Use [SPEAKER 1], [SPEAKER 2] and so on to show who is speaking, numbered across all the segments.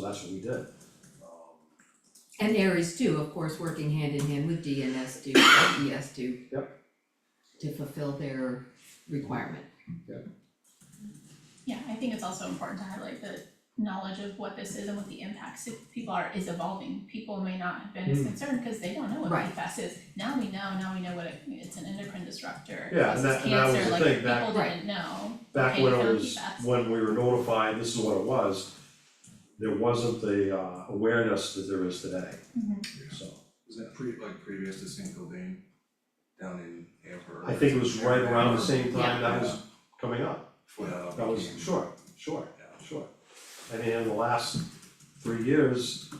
[SPEAKER 1] So that's what we did.
[SPEAKER 2] And Aries too, of course, working hand in hand with DNS do, DES do. E To fulfill their requirement.
[SPEAKER 3] Yeah, I think it's also important to highlight that knowledge of what this is and what the impacts of people are is evolving. People may not have been as
[SPEAKER 1] Mm.
[SPEAKER 3] concerned because they don't know what
[SPEAKER 2] Right.
[SPEAKER 3] PFAS is. Now we know, now we know what it, it's an endocrine disruptor, it
[SPEAKER 1] Yeah, and
[SPEAKER 3] causes
[SPEAKER 1] that- and that was
[SPEAKER 3] cancer,
[SPEAKER 1] the
[SPEAKER 3] like
[SPEAKER 1] thing,
[SPEAKER 3] people
[SPEAKER 1] back-
[SPEAKER 3] didn't know.
[SPEAKER 1] Back
[SPEAKER 3] Okay,
[SPEAKER 1] when it
[SPEAKER 3] so
[SPEAKER 1] was,
[SPEAKER 3] PFAS.
[SPEAKER 1] when we were notified, this is what it was, there wasn't the uh awareness that there is today,
[SPEAKER 3] Mm-hmm.
[SPEAKER 1] so.
[SPEAKER 4] Was that pretty like previous to St. Gildan down in Amber?
[SPEAKER 1] I think it was right around the same time that was
[SPEAKER 4] Yeah.
[SPEAKER 1] coming up,
[SPEAKER 4] Before that all
[SPEAKER 1] that was,
[SPEAKER 4] became-
[SPEAKER 1] sure, sure,
[SPEAKER 4] Yeah.
[SPEAKER 1] sure. I mean, in the last three years,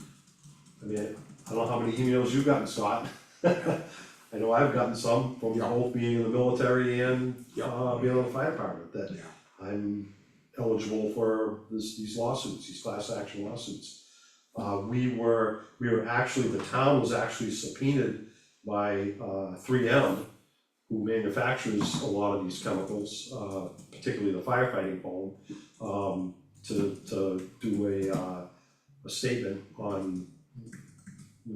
[SPEAKER 1] I mean, I don't know how many emails you've gotten, Scott. I know I've gotten some from
[SPEAKER 5] Yeah.
[SPEAKER 1] both being in the military and
[SPEAKER 5] Yeah.
[SPEAKER 1] uh being in the fire department, that
[SPEAKER 4] Yeah.
[SPEAKER 1] I'm eligible for this, these lawsuits, these class action lawsuits. Uh, we were, we were actually, the town was actually subpoenaed by, uh, three M, who manufactures a lot of these chemicals, uh, particularly the firefighting foam, um, to, to do a, uh, a statement on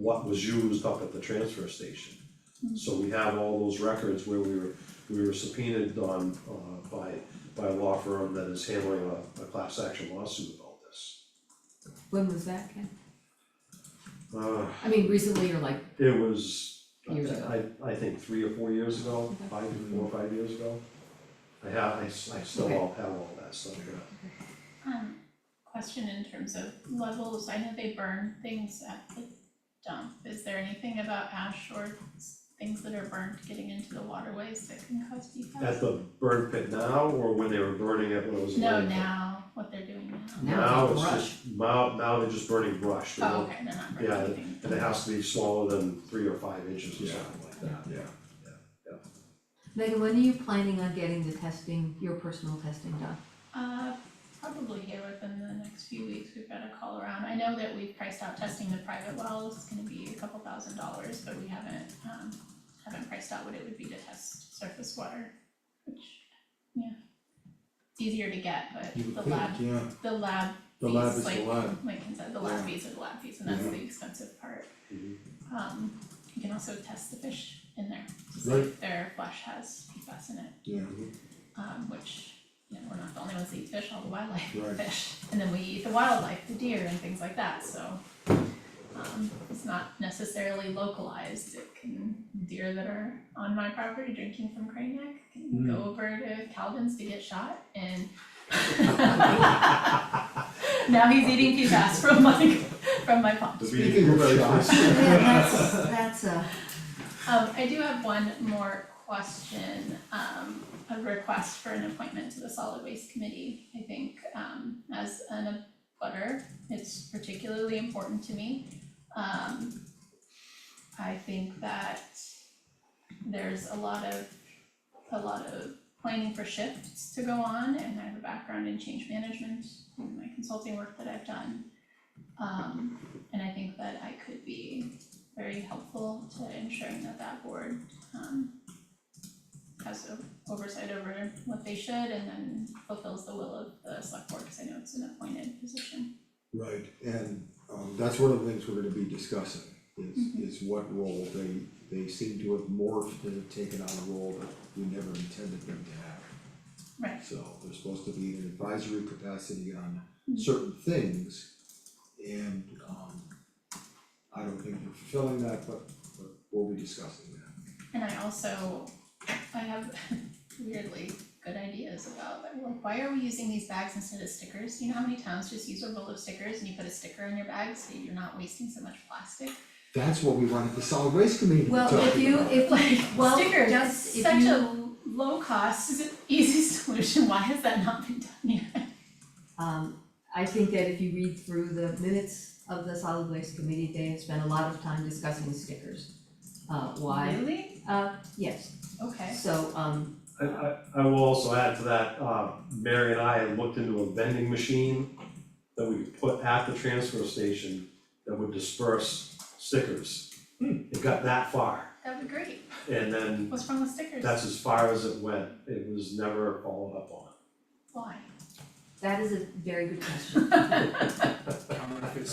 [SPEAKER 1] what was used up at the transfer station.
[SPEAKER 2] Mm-hmm.
[SPEAKER 1] So we have all those records where we were, we were subpoenaed on, uh, by by a law firm that is handling a, a class action lawsuit about this.
[SPEAKER 2] When was that, Ken?
[SPEAKER 1] Uh,
[SPEAKER 2] I mean, recently or like,
[SPEAKER 1] it was,
[SPEAKER 2] Years
[SPEAKER 1] I,
[SPEAKER 2] ago.
[SPEAKER 1] I think three or four years ago,
[SPEAKER 2] Okay.
[SPEAKER 1] five, four or five years ago. I have, I, s- I still
[SPEAKER 2] Okay.
[SPEAKER 1] all have all that stuff, yeah.
[SPEAKER 3] Um, question in terms of levels, I know they burn things at the dump. Is there anything about ash or s- things that are burned getting into the waterways that can cause PFAS?
[SPEAKER 1] At the burn pit now, or when they were burning it when it was a
[SPEAKER 3] No,
[SPEAKER 1] landfill?
[SPEAKER 3] now, what they're doing now.
[SPEAKER 2] now it's all
[SPEAKER 1] Now
[SPEAKER 2] brush.
[SPEAKER 1] it's just, now, now they're just burning brush, they
[SPEAKER 3] Oh,
[SPEAKER 1] don't-
[SPEAKER 3] okay, they're not
[SPEAKER 1] Yeah,
[SPEAKER 3] burning anything.
[SPEAKER 1] and it has to be smaller than three or five inches or
[SPEAKER 5] Yeah.
[SPEAKER 1] something like that.
[SPEAKER 5] Yeah.
[SPEAKER 2] Megan, when are you planning on getting the testing, your personal testing done?
[SPEAKER 3] Uh, probably here within the next few weeks, we've got a call around. I know that we've priced out testing the private wells, it's gonna be a couple thousand dollars, but we haven't, um, haven't priced out what it would be to test surface water, which, yeah. It's easier to get, but
[SPEAKER 5] You
[SPEAKER 3] the
[SPEAKER 5] would
[SPEAKER 3] lab,
[SPEAKER 5] think, yeah,
[SPEAKER 3] the lab
[SPEAKER 5] the lab is
[SPEAKER 3] fees,
[SPEAKER 5] the
[SPEAKER 3] like-
[SPEAKER 5] lab,
[SPEAKER 3] like Ken said, the lab
[SPEAKER 5] Yeah. Mm-hmm.
[SPEAKER 3] fees are the lab fees, and that's
[SPEAKER 5] Yeah.
[SPEAKER 3] the expensive part.
[SPEAKER 1] Mhm.
[SPEAKER 3] Um, you can also test the fish in there, to see if their flesh has PFAS in it
[SPEAKER 5] yeah,
[SPEAKER 3] um, which, you know, we're not the only ones that eat fish, all the wildlife eat
[SPEAKER 5] Right.
[SPEAKER 3] fish. And then we eat the wildlife, the deer and things like that, so, um, it's not necessarily localized. It can, deer that are on my property drinking from crane neck
[SPEAKER 5] Mm.
[SPEAKER 3] can go over to Calvin's to get shot and now he's eating PFAS from my, from my pond.
[SPEAKER 1] The
[SPEAKER 5] Speaking
[SPEAKER 1] beating
[SPEAKER 5] of
[SPEAKER 1] really-
[SPEAKER 5] shots.
[SPEAKER 2] Yeah, that's, that's uh, a,
[SPEAKER 3] Um, I do have one more question, um, a request for an appointment to the solid waste committee. I think, um, as an abutter, it's particularly important to me. Um, I think that there's a lot of, a lot of planning for shifts to go on, and I have a background in change management and my consulting work that I've done. Um, and I think that I could be very helpful to ensuring that that board um has o- oversight over what they should and then fulfills the will of the select board, cause I know it's an appointed position.
[SPEAKER 5] right, and um that's one of the things we're gonna be discussing is
[SPEAKER 2] Mm-hmm.
[SPEAKER 5] is what role they they seem to have morphed and have taken on a role that we never intended them to have.
[SPEAKER 3] Right.
[SPEAKER 5] So they're supposed to be in an advisory capacity on
[SPEAKER 2] Mm-hmm.
[SPEAKER 3] Mhm.
[SPEAKER 5] certain things and um I don't think they're fulfilling that, but but we'll be discussing that.
[SPEAKER 3] And I also, I have weirdly good ideas about like, well, why are we using these bags instead of stickers? You know how many towns just use a roll of stickers and you put a sticker on your bag so you're not wasting so much plastic?
[SPEAKER 5] That's what we wanted the solid waste committee to be
[SPEAKER 2] well,
[SPEAKER 5] talking
[SPEAKER 2] if you,
[SPEAKER 5] about.
[SPEAKER 2] if
[SPEAKER 3] Like
[SPEAKER 2] like, well,
[SPEAKER 3] stickers,
[SPEAKER 2] just if
[SPEAKER 3] such
[SPEAKER 2] you,
[SPEAKER 3] a low cost, easy solution, why has that not been done yet?
[SPEAKER 2] um, I think that if you read through the minutes of the solid waste committee, they have spent a lot of time discussing stickers. Uh, why?
[SPEAKER 3] Really?
[SPEAKER 2] Uh, yes,
[SPEAKER 3] Okay.
[SPEAKER 2] so, um,
[SPEAKER 1] I, I, I will also add to that, uh, Mary and I had looked into a vending machine that we could put at the transfer station that would disperse stickers.
[SPEAKER 5] Hmm.
[SPEAKER 1] It got that far,
[SPEAKER 3] That'd be great.
[SPEAKER 1] and then
[SPEAKER 3] What's wrong with stickers?
[SPEAKER 1] that's as far as it went, it was never followed up on.
[SPEAKER 3] Why?
[SPEAKER 6] That is a very good question.
[SPEAKER 2] I don't know if it's